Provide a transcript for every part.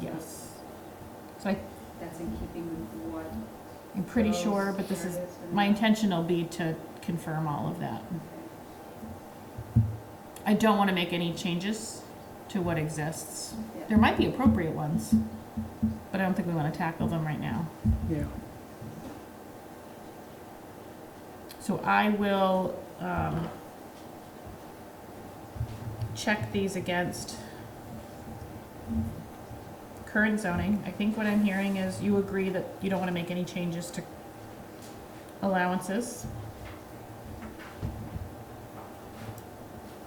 Yes. So I, That's in keeping with what. I'm pretty sure, but this is, my intention will be to confirm all of that. I don't want to make any changes to what exists. There might be appropriate ones, but I don't think we want to tackle them right now. Yeah, So I will, um, check these against current zoning. I think what I'm hearing is you agree that you don't wanna make any changes to allowances.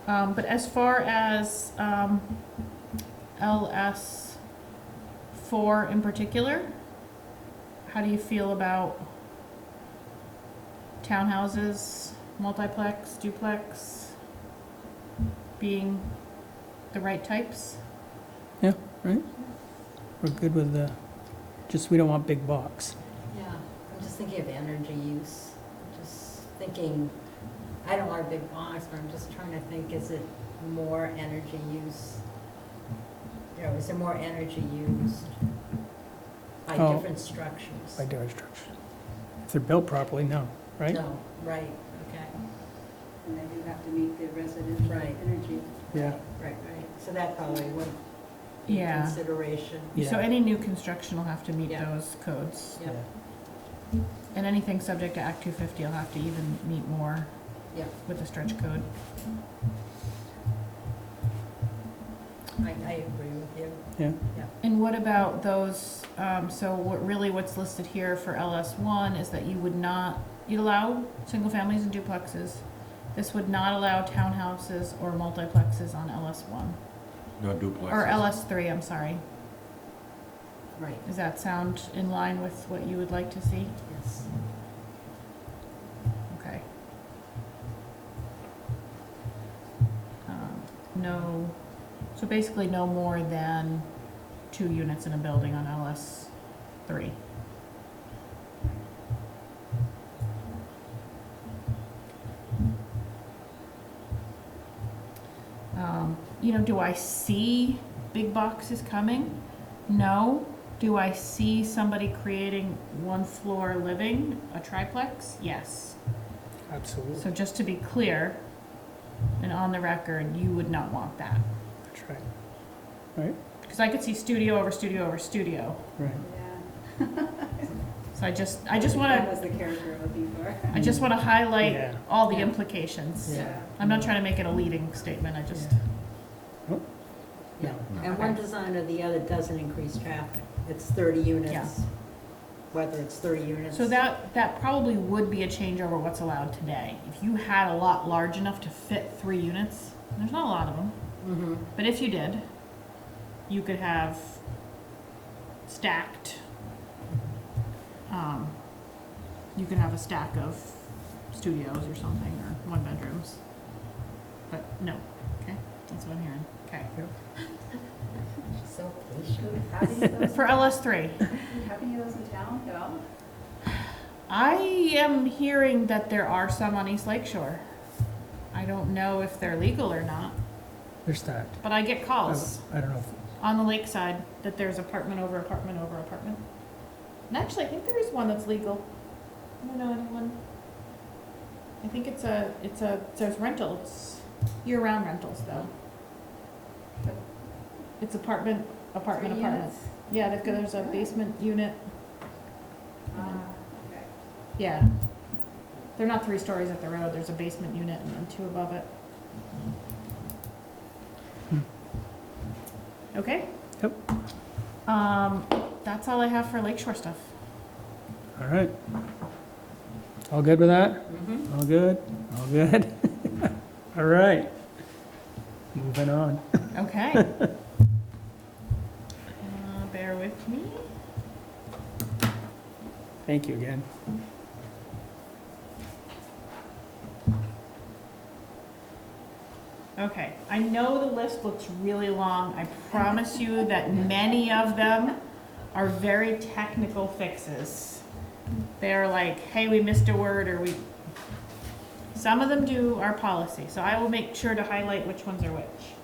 Um, but as far as, um, LS four in particular, how do you feel about townhouses, multiplex, duplex being the right types? we're good with the, just we don't want big box. Yeah, I'm just thinking of energy use, I'm just thinking, I don't want a big box, but I'm just trying to think, is it more energy use? You know, is there more energy used by Oh. different structures? By dark structure. If they're built properly, no, right? No, right, okay, And they do have to meet the residential Right. energy. Yeah, right, right, so that probably would be a Yeah. consideration. yeah. So any new construction will have to meet Yeah. those codes. Yep, And anything subject to Act two fifty will have to even meet more Yeah. with the stretch code. I, I agree with you. And what about those, um, so what, really what's listed here for LS one is that you would not, you'd allow single families and duplexes. This would not allow townhouses or multiplexes on LS one, No duplexes. or LS three, I'm sorry. Right, Does that sound in line with what you would like to see? yes. Okay. Um, No, so basically no more than two units in a building on LS three. Um, you know, do I see big boxes coming? No. Do I see somebody creating one floor living, a triplex? Yes. Absolutely, So just to be clear, and on the record, you would not want that. that's right, Because I could see studio over studio over studio. right. Yeah. So I just, I just want That to, was the character I'm looking for. I just want to highlight Yeah. all the Yeah. implications. Yeah. I'm not trying to make it a leading statement, I just, Yeah, No. and one design or the other doesn't increase traffic. It's 30 Yeah. units, whether it's 30 units. so that, that probably would be a change over what's allowed today. If you had a lot large enough to fit three units, there's not a lot of them, Mhm. but if you did, you could have stacked, um, you could have a stack of studios or something, or one bedrooms. But no, okay, that's what I'm hearing, okay. So patient. How many of those, For LS three, how many of those in town at all? I am hearing that there are some on East Lake Shore. I don't know if they're legal or not, They're stacked. but I get I calls. don't- I don't know, on the lakeside that there's apartment over apartment over apartment. And actually, I think there is one that's legal. I don't know anyone. I think it's a, it's a, it says rentals, year-round rentals though. It's apartment, apartment, Three apartment. units? Yeah, they've got, there's a basement unit, Ah, okay. yeah. They're not three stories at the road, there's a basement unit and then two above it. Hmm. Okay? Yep. Um, that's all I have for Lakeshore stuff. all right. All good with that? Mhm. All good, all good? All right, moving on. Okay. Uh, Bear with me. Thank you again. Okay, I know the list looks really long. I promise you that many of them are very technical fixes. They're like, hey, we missed a word, or we. Some of them do our policy, so I will make sure to highlight which ones are which.